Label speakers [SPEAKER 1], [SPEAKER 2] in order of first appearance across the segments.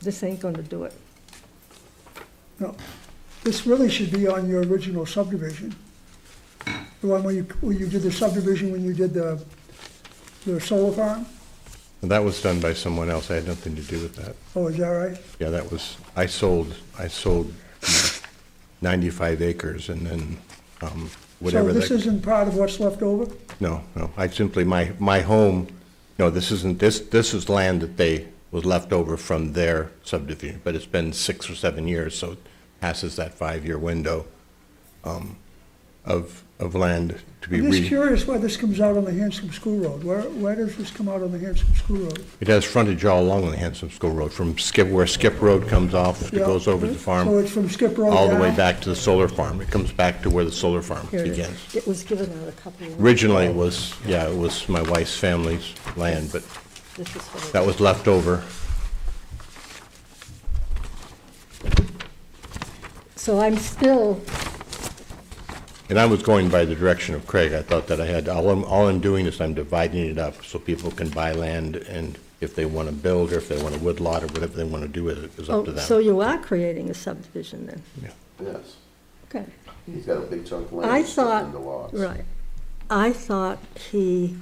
[SPEAKER 1] this ain't gonna do it.
[SPEAKER 2] No, this really should be on your original subdivision. The one where you, where you did the subdivision, when you did the, the solar farm?
[SPEAKER 3] And that was done by someone else. I had nothing to do with that.
[SPEAKER 2] Oh, is that right?
[SPEAKER 3] Yeah, that was, I sold, I sold 95 acres and then um, whatever
[SPEAKER 2] So this
[SPEAKER 3] that,
[SPEAKER 2] isn't part of what's left over?
[SPEAKER 3] no, no. I simply, my, my home, no, this isn't, this, this is land that they, was left over from their subdivision, but it's been six or seven years, so it passes that five-year window um, of, of land to be
[SPEAKER 2] I'm just
[SPEAKER 3] re.
[SPEAKER 2] curious why this comes out on the Hanscom School Road. Where, where does this come out on the Hanscom School Road?
[SPEAKER 3] It has frontage all along the Hanson School Road, from Skip, where Skip Road comes off, it
[SPEAKER 2] Yeah.
[SPEAKER 3] goes over the farm.
[SPEAKER 2] So it's from Skip Road
[SPEAKER 3] all the way
[SPEAKER 2] down?
[SPEAKER 3] back to the solar farm. It comes back to where the solar farm
[SPEAKER 1] Here it is.
[SPEAKER 3] begins.
[SPEAKER 1] It was given out a couple of.
[SPEAKER 3] Originally, it was, yeah, it was my wife's family's land, but
[SPEAKER 1] This is what it-
[SPEAKER 3] that was left over.
[SPEAKER 1] So I'm still,
[SPEAKER 3] And I was going by the direction of Craig. I thought that I had, all I'm, all I'm doing is I'm dividing it up so people can buy land and if they want to build or if they want to woodlot or whatever they want to do with it is up to
[SPEAKER 1] oh, so
[SPEAKER 3] them.
[SPEAKER 1] you are creating a subdivision then?
[SPEAKER 3] Yeah.
[SPEAKER 4] Yes,
[SPEAKER 1] Okay.
[SPEAKER 4] he's got a big chunk of
[SPEAKER 1] I
[SPEAKER 4] land split into
[SPEAKER 1] thought,
[SPEAKER 4] lots.
[SPEAKER 1] right. I thought he,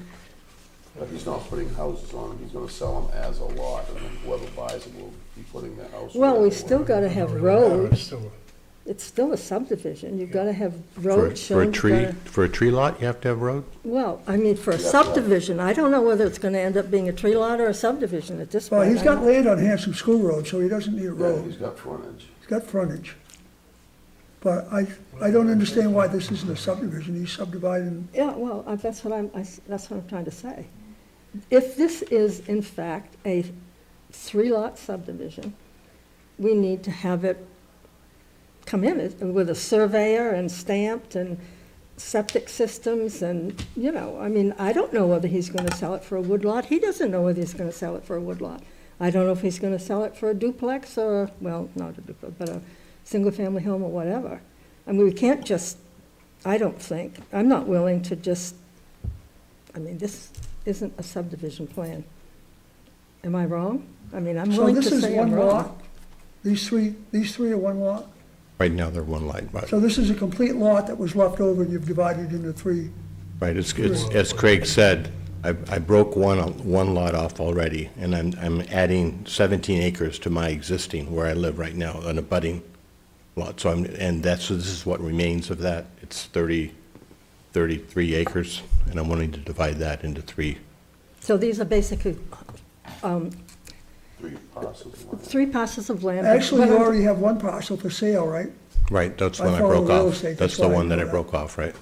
[SPEAKER 4] But he's not putting houses on them, he's gonna sell them as a lot, and then whoever buys them will be putting their house.
[SPEAKER 1] well,
[SPEAKER 4] where
[SPEAKER 1] we
[SPEAKER 4] they
[SPEAKER 1] still
[SPEAKER 4] want.
[SPEAKER 1] gotta have roads. It's still a subdivision. You've gotta have
[SPEAKER 3] For a-
[SPEAKER 1] roads
[SPEAKER 3] For
[SPEAKER 1] shown.
[SPEAKER 3] a
[SPEAKER 1] you've
[SPEAKER 3] tree,
[SPEAKER 1] gotta-
[SPEAKER 3] for a tree lot, you have to have road?
[SPEAKER 1] Well, I mean, for a
[SPEAKER 4] Yeah, right.
[SPEAKER 1] subdivision, I don't know whether it's gonna end up being a tree lot or a subdivision at this point.
[SPEAKER 2] Well, he's
[SPEAKER 1] I
[SPEAKER 2] got
[SPEAKER 1] don't-
[SPEAKER 2] land on Hanscom School Road, so he doesn't need a
[SPEAKER 4] Yeah, he's
[SPEAKER 2] road.
[SPEAKER 4] got frontage.
[SPEAKER 2] He's got frontage. But I, I don't understand why this isn't a subdivision. He's subdividing
[SPEAKER 1] Yeah, well, I- that's what I'm, I s- that's what I'm trying to say. If this is in fact a three-lot subdivision, we need to have it come in as- with a surveyor and stamped and septic systems and, you know, I mean, I don't know whether he's gonna sell it for a woodlot. He doesn't know whether he's gonna sell it for a woodlot. I don't know if he's gonna sell it for a duplex or, a- well, not a duplex, but a single-family home or whatever. I mean, we can't just I don't think, I'm not willing to just, I mean, this isn't a subdivision plan. Am I wrong? I mean, I'm
[SPEAKER 2] So
[SPEAKER 1] willing to
[SPEAKER 2] this is
[SPEAKER 1] say I'm
[SPEAKER 2] one
[SPEAKER 1] wrong.
[SPEAKER 2] lot? These three, these three are one lot?
[SPEAKER 3] Right now, they're one lot, but,
[SPEAKER 2] So this is a complete lot that was left over and you've divided into three?
[SPEAKER 3] right, it's, it's, as Craig said, I, I broke one, one lot off already and I'm, I'm adding 17 acres to my existing where I live right now, an abutting lot. So I'm, and that's, so this is what remains of that. It's 30, 33 acres and I'm wanting to divide that into three.
[SPEAKER 1] So these are basically um,
[SPEAKER 4] Three parcels of land.
[SPEAKER 1] three parcels of land. but
[SPEAKER 2] Actually,
[SPEAKER 1] what
[SPEAKER 2] you
[SPEAKER 1] I'm-
[SPEAKER 2] already have one parcel for sale, right?
[SPEAKER 3] Right, that's
[SPEAKER 2] I
[SPEAKER 3] when I
[SPEAKER 2] follow
[SPEAKER 3] broke
[SPEAKER 2] real
[SPEAKER 3] off.
[SPEAKER 2] estate,
[SPEAKER 3] That's
[SPEAKER 2] that's
[SPEAKER 3] the
[SPEAKER 2] why I
[SPEAKER 3] one that
[SPEAKER 2] know
[SPEAKER 3] I
[SPEAKER 2] that.
[SPEAKER 3] broke off, right?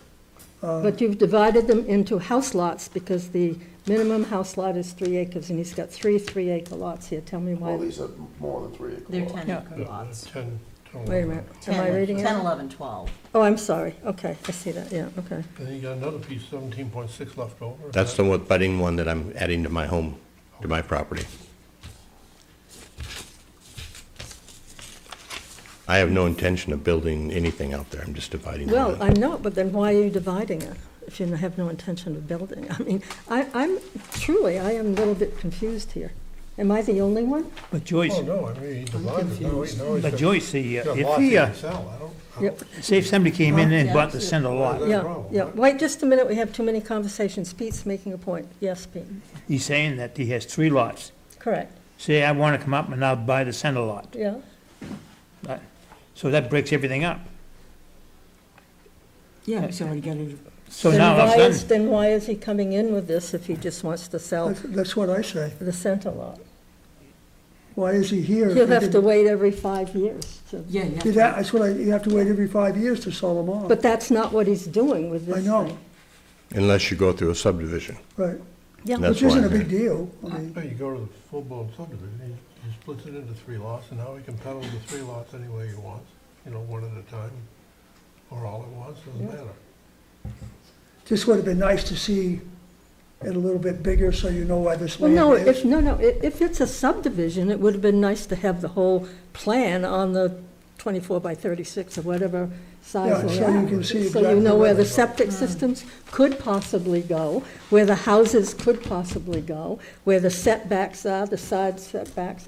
[SPEAKER 1] But you've divided them into house lots because the minimum house lot is three acres and he's got three three-acre lots here. Tell me
[SPEAKER 4] Well,
[SPEAKER 1] why.
[SPEAKER 4] these are more than three acre
[SPEAKER 5] They're
[SPEAKER 4] lots.
[SPEAKER 5] 10 acre lots.
[SPEAKER 6] Ten, twelve.
[SPEAKER 1] Wait a minute, am I
[SPEAKER 5] 10,
[SPEAKER 1] reading
[SPEAKER 5] 10,
[SPEAKER 1] it?
[SPEAKER 5] 11, 12.
[SPEAKER 1] Oh, I'm sorry. Okay, I see that, yeah, okay.
[SPEAKER 6] Then you got another piece, seventeen point six left over.
[SPEAKER 3] That's the one, budding one that I'm adding to my home, to my property. I have no intention of building anything out there, I'm just dividing it
[SPEAKER 1] Well,
[SPEAKER 3] up.
[SPEAKER 1] I'm not, but then why are you dividing it if you have no intention of building? I mean, I, I'm, truly, I am a little bit confused here. Am I the only one?
[SPEAKER 7] But Joyce,
[SPEAKER 6] Oh, no, I mean, he divided, now he, now he's
[SPEAKER 7] but
[SPEAKER 6] got-
[SPEAKER 7] Joyce, the,
[SPEAKER 6] he's
[SPEAKER 7] uh,
[SPEAKER 6] got
[SPEAKER 7] if
[SPEAKER 6] lots he
[SPEAKER 7] he, uh,
[SPEAKER 6] can sell, I don't, I
[SPEAKER 1] Yep,
[SPEAKER 6] don't,
[SPEAKER 7] say if somebody came in and bought the center lot,
[SPEAKER 6] That's
[SPEAKER 1] yeah,
[SPEAKER 6] wrong.
[SPEAKER 1] yeah. Wait just a minute, we have too many conversations. Pete's making a point. Yes, Pete,
[SPEAKER 7] he's saying that he has three lots.
[SPEAKER 1] correct,
[SPEAKER 7] Say, I want to come up and I'll buy the center lot.
[SPEAKER 1] yeah.
[SPEAKER 7] Uh, So that breaks everything up.
[SPEAKER 8] Yeah, he's already got it.
[SPEAKER 7] So
[SPEAKER 1] Then
[SPEAKER 7] now all of a
[SPEAKER 1] why is-
[SPEAKER 7] sudden,
[SPEAKER 1] Then why is he coming in with this if he just wants to sell
[SPEAKER 2] That's, that's what I say.
[SPEAKER 1] the center lot?
[SPEAKER 2] Why is he here? if
[SPEAKER 1] He'll
[SPEAKER 2] he
[SPEAKER 1] have to
[SPEAKER 2] didn't-
[SPEAKER 1] wait every five years to,
[SPEAKER 8] Yeah, yeah.
[SPEAKER 2] Did that- That's what I, you have to wait every five years to sell them off.
[SPEAKER 1] but that's not what he's doing with this
[SPEAKER 2] I
[SPEAKER 1] thing.
[SPEAKER 2] know,
[SPEAKER 3] Unless you go through a subdivision.
[SPEAKER 2] right.
[SPEAKER 1] Yeah.
[SPEAKER 3] That's
[SPEAKER 2] Which isn't a
[SPEAKER 3] why I'm
[SPEAKER 2] big deal. I mean,
[SPEAKER 6] No, you go to the full-blown subdivision, he, he splits it into three lots, and now he can peddle the three lots any way he wants, you know, one at a time, or all at once, doesn't matter.
[SPEAKER 2] Just would have been nice to see it a little bit bigger so you know why this
[SPEAKER 1] Well, no,
[SPEAKER 2] land
[SPEAKER 1] if,
[SPEAKER 2] is.
[SPEAKER 1] no, no, i- if it's a subdivision, it would have been nice to have the whole plan on the 24 by 36 or whatever size
[SPEAKER 2] Yeah,
[SPEAKER 1] they
[SPEAKER 2] so you
[SPEAKER 1] are.
[SPEAKER 2] can see
[SPEAKER 1] So you
[SPEAKER 2] exactly
[SPEAKER 1] know
[SPEAKER 2] where
[SPEAKER 1] where the
[SPEAKER 2] they go.
[SPEAKER 1] septic systems could possibly go, where the houses could possibly go, where the setbacks are, the side setbacks,